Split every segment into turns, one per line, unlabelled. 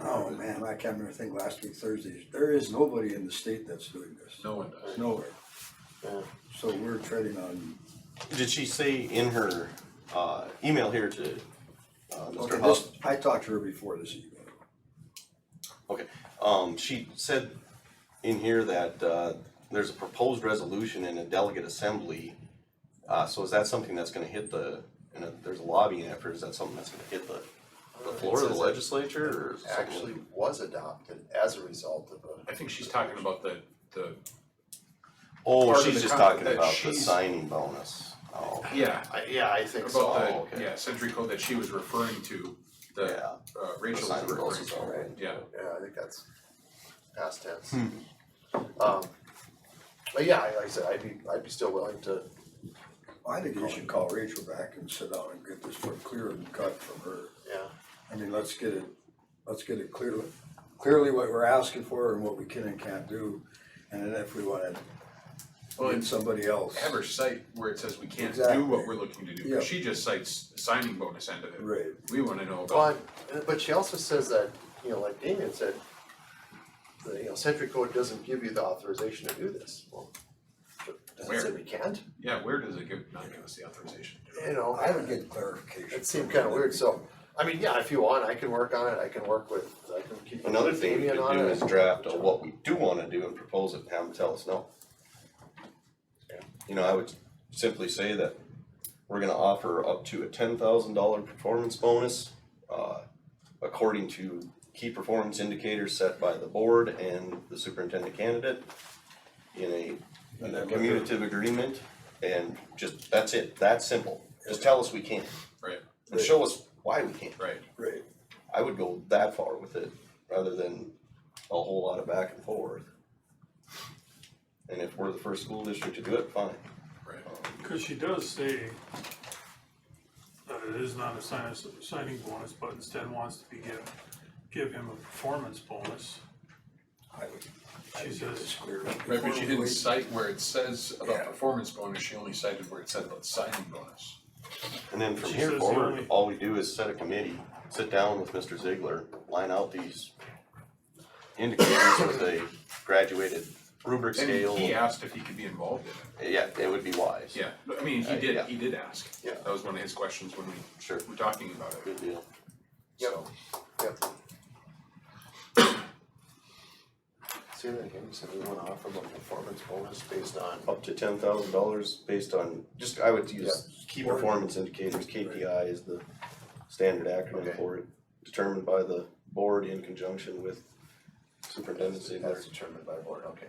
Oh, man, I can't remember, I think last week Thursday, there is nobody in the state that's doing this,
No one does.
nowhere.
Yeah.
So we're treading on,
Did she say in her uh, email here to uh,
okay,
Mr. Huff?
this, I talked to her before this evening.
Okay, um, she said in here that uh, there's a proposed resolution in a delegate assembly. Uh, so is that something that's gonna hit the, and there's a lobbying effort, is that something that's gonna hit the, the floor of the
It says it
legislature or is it something-
Actually was adopted as a result of a.
I think she's talking about the, the,
Oh,
part of
she's
the
just
con-
talking
that
about the
she's-
signing bonus. Oh,
yeah,
I- Yeah, I think so.
Oh,
about the,
okay.
yeah, century code that she was referring to, that
yeah,
uh, Rachel was
signing
referring
bonus is all
to,
right.
yeah.
Yeah, I think that's past tense. Um, but yeah, like I said, I'd be, I'd be still willing to,
I think you should call Rachel back and sit down and get this one clear and cut from her.
yeah,
I mean, let's get it, let's get it clearly, clearly what we're asking for and what we can and can't do. And then if we wanna
Well,
get
and
somebody else.
have her cite where it says we can't
Exactly.
do what we're looking to do,
Yeah.
but she just cites the signing bonus end of it.
Right,
We wanna know about,
but, but she also says that, you know, like Damien said, the, you know, century code doesn't give you the authorization to do this, well, does it say
Where?
we can't?
yeah, where does it give, not give us the authorization? to do it?
You know,
I would get clarification.
It seemed kinda weird, so, I mean, yeah, if you want, I can work on it, I can work with, I can keep.
Another thing we
Damien
could
on
do
it.
is draft a what we do wanna do and propose it, and have them tell us no.
Yeah.
You know, I would simply say that we're gonna offer up to a ten thousand dollar performance bonus, uh, according to key performance indicators set by the board and the superintendent candidate in a, in a communicative agreement, and just, that's it, that's simple. Just tell us we can't,
Right,
and show us why we can't.
right,
Right,
I would go that far with it rather than a whole lot of back and forth. And if we're the first school district to do it, fine.
right.
Cause she does say that it is not a sign, signing bonus, but instead wants to be give, give him a performance bonus.
I would, I
She
would get
says-
this clear.
Right, but she didn't
Wait,
cite where it says
Yeah.
about performance bonus, she only cited where it said about signing bonus.
And then from
She
here
says the
forward,
only-
all we do is set a committee, sit down with Mr. Ziegler, line out these indicators with a graduated rubric
And
scale.
he asked if he could be involved in it.
Yeah, it would be wise.
Yeah, but, I mean, he
Uh,
did,
yeah.
he did ask.
Yeah.
That was one of his questions when we
Sure,
were talking about it,
good deal.
Yep.
so.
Yep. See that again, so we wanna offer them a performance bonus based on,
Up to ten thousand dollars based on, just, I would use key performance indicators, KPI is the standard acronym
Okay.
for it. Determined by the board in conjunction with superintendent Ziegler.
as determined by board, okay.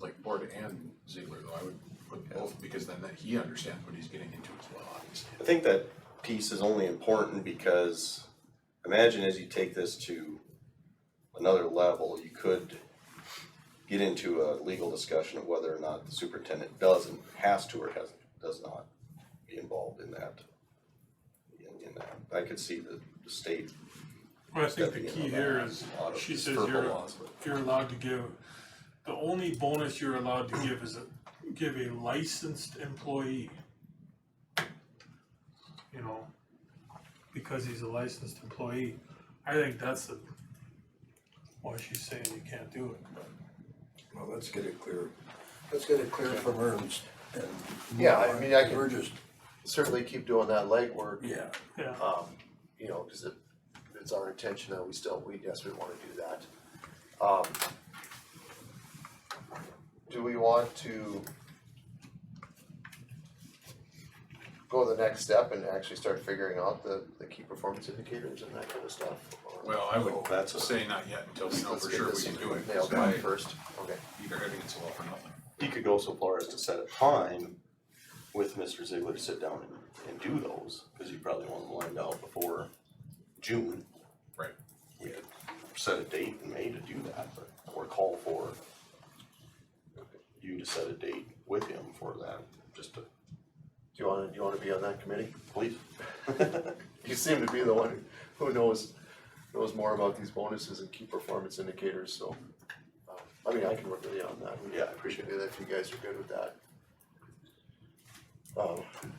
like Board and Ziegler, though, I would put both, because then that he understands what he's getting into as well, obviously.
I think that piece is only important because imagine as you take this to another level, you could get into a legal discussion of whether or not the superintendent doesn't, has to or has, does not be involved in that. In, in that, I could see the, the state
Well, I think the
stepping in
key
on
here
that.
is,
A lot of
she says
purple
you're,
laws, but-
you're allowed to give, the only bonus you're allowed to give is a, give a licensed employee. You know, because he's a licensed employee, I think that's the, why she's saying you can't do it, but.
Well, let's get it clear, let's get it clear from her and. and
Yeah, I mean, I can-
We're just,
Certainly keep doing that legwork,
yeah,
Yeah,
um, you know, cause it, it's our intention that we still, we, yes, we wanna do that. Um. Do we want to go the next step and actually start figuring out the, the key performance indicators and that kind of stuff? or-
Well, I would
That's a-
say not yet until we know
Oh, Let's
for
get
sure we
this
can do it, that's
nailed down
why
first, okay.
either heading it's a law for nothing.
he could go so far as to set a time with Mr. Ziegler to sit down and, and do those, cause you probably want them lined out before June.
Right.
We could set a date in May to do that, but, or call for you to set a date with him for that, just to,
Do you wanna, do you wanna be on that committee?
please.
You seem to be the one who knows, knows more about these bonuses and key performance indicators, so. um, I mean, I can work with you on that.
Yeah, I appreciate
Do that if you guys are good with that. Um,